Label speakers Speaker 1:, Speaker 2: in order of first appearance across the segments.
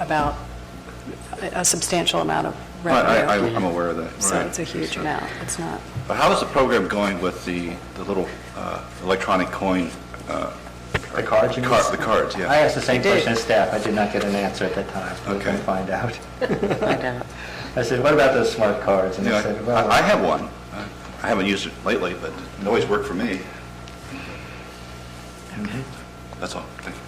Speaker 1: about a a substantial amount of
Speaker 2: I- I,
Speaker 1: revenue.
Speaker 2: I'm aware of that.
Speaker 1: So
Speaker 2: right.
Speaker 1: it's a huge amount. It's not,
Speaker 2: But how is the program going with the, the little uh, electronic coin? uh,
Speaker 3: The cards, you mean?
Speaker 2: car- The cards, yeah.
Speaker 3: I asked the same
Speaker 1: They did.
Speaker 3: question as staff, I did not get an answer at that time, so we
Speaker 2: Okay.
Speaker 3: can find out.
Speaker 4: find out.
Speaker 3: I said, what about those smart cards? And
Speaker 2: Yeah,
Speaker 3: they said,
Speaker 2: I- I
Speaker 3: well,
Speaker 2: have one. I haven't used it lately, but it always worked for me.
Speaker 3: mm-hmm.
Speaker 2: That's all. Thank you.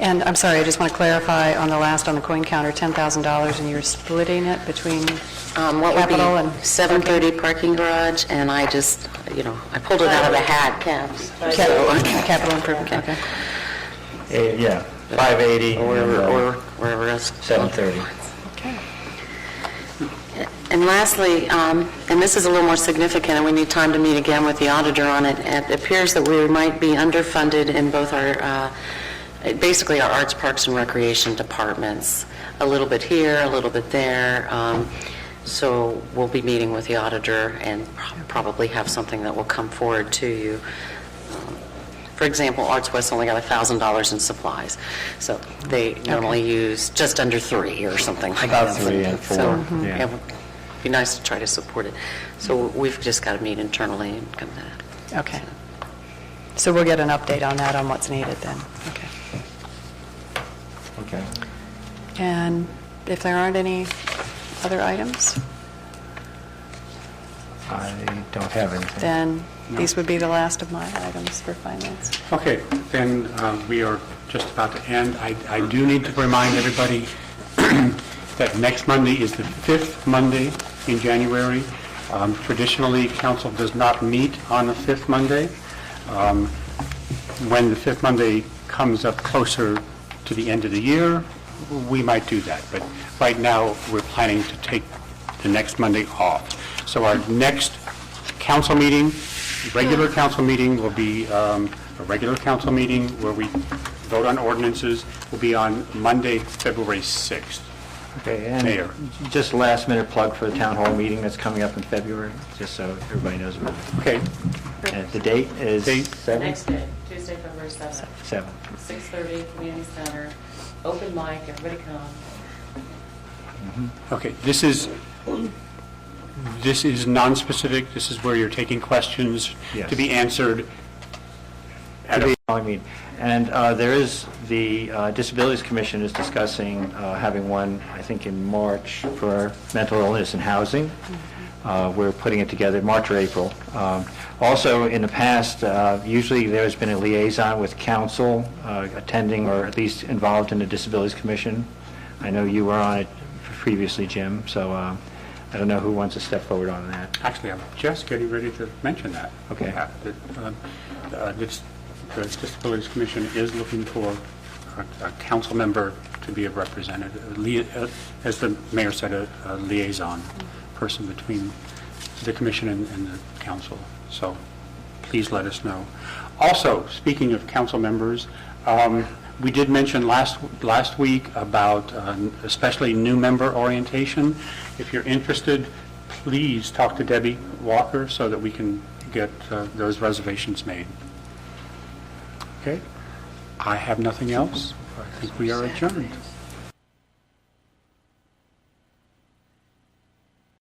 Speaker 1: and I'm sorry, I just want to clarify on the last, on the coin counter, $10,000, and you're splitting it between
Speaker 4: Um, What would be
Speaker 1: Capital and
Speaker 4: 7:30 parking garage, and I just, you know, I pulled it out of the hat, caps. uh,
Speaker 1: cap- capital improvement, okay.
Speaker 3: eh, yeah, 580
Speaker 4: Or
Speaker 3: and, uh,
Speaker 4: or wherever else.
Speaker 3: 730.
Speaker 1: Okay.
Speaker 4: And lastly, um, and this is a little more significant, and we need time to meet again with the auditor on it, it appears that we might be underfunded in both our, uh, basically our arts, parks, and recreation departments, a little bit here, a little bit there. Um, So we'll be meeting with the auditor and prob- probably have something that will come forward to you. Um, For example, Arts West only got $1,000 in supplies, so they normally use just under three or something like that.
Speaker 3: About three and four,
Speaker 4: So,
Speaker 3: Mhm. yeah.
Speaker 4: it would be nice to try to support it. So we've just got to meet internally and come to that.
Speaker 1: Okay. So we'll get an update on that, on what's needed then. Okay.
Speaker 3: Okay.
Speaker 1: And if there aren't any other items,
Speaker 3: I don't have anything.
Speaker 1: then these would be the last of my items for finance.
Speaker 5: Okay, then uh, we are just about to end. I I do need to remind everybody that next Monday is the fifth Monday in January. Um, Traditionally, council does not meet on the fifth Monday. Um, When the fifth Monday comes up closer to the end of the year, we might do that, but right now, we're planning to take the next Monday off. So our next council meeting, regular council meeting will be, um, a regular council meeting where we vote on ordinances will be on Monday, February 6th.
Speaker 3: Okay,
Speaker 5: Mayor.
Speaker 3: and just last minute plug for the town hall meeting that's coming up in February, just so everybody knows about it.
Speaker 5: Okay,
Speaker 3: And The date is
Speaker 5: Date.
Speaker 3: 7?
Speaker 6: Next day, Tuesday, February 7th,
Speaker 3: 7.
Speaker 6: 6:30, Community Center, open mic, everybody come.
Speaker 5: okay, this is, this is non-specific, this is where you're taking questions to be answered at a
Speaker 3: I mean, and uh, there is, the uh, Disabilities Commission is discussing uh, having one, I think, in March for mental illness and housing. Uh, We're putting it together, March or April. Um, Also, in the past, uh, usually there's been a liaison with council uh, attending or at least involved in the Disabilities Commission. I know you were on it previously, Jim, so uh, I don't know who wants to step forward on that.
Speaker 5: Actually, I'm just getting ready to mention that.
Speaker 3: Okay.
Speaker 5: Uh, that, um, uh, this- The Disabilities Commission is looking for a a council member to be a representative, a lia- uh, as the mayor said, a a liaison person between the commission and and the council. So please let us know. Also, speaking of council members, um, we did mention last, last week about uh, especially new member orientation. If you're interested, please talk to Debbie Walker so that we can get uh, those reservations made. Okay? I have nothing else. I think we are adjourned.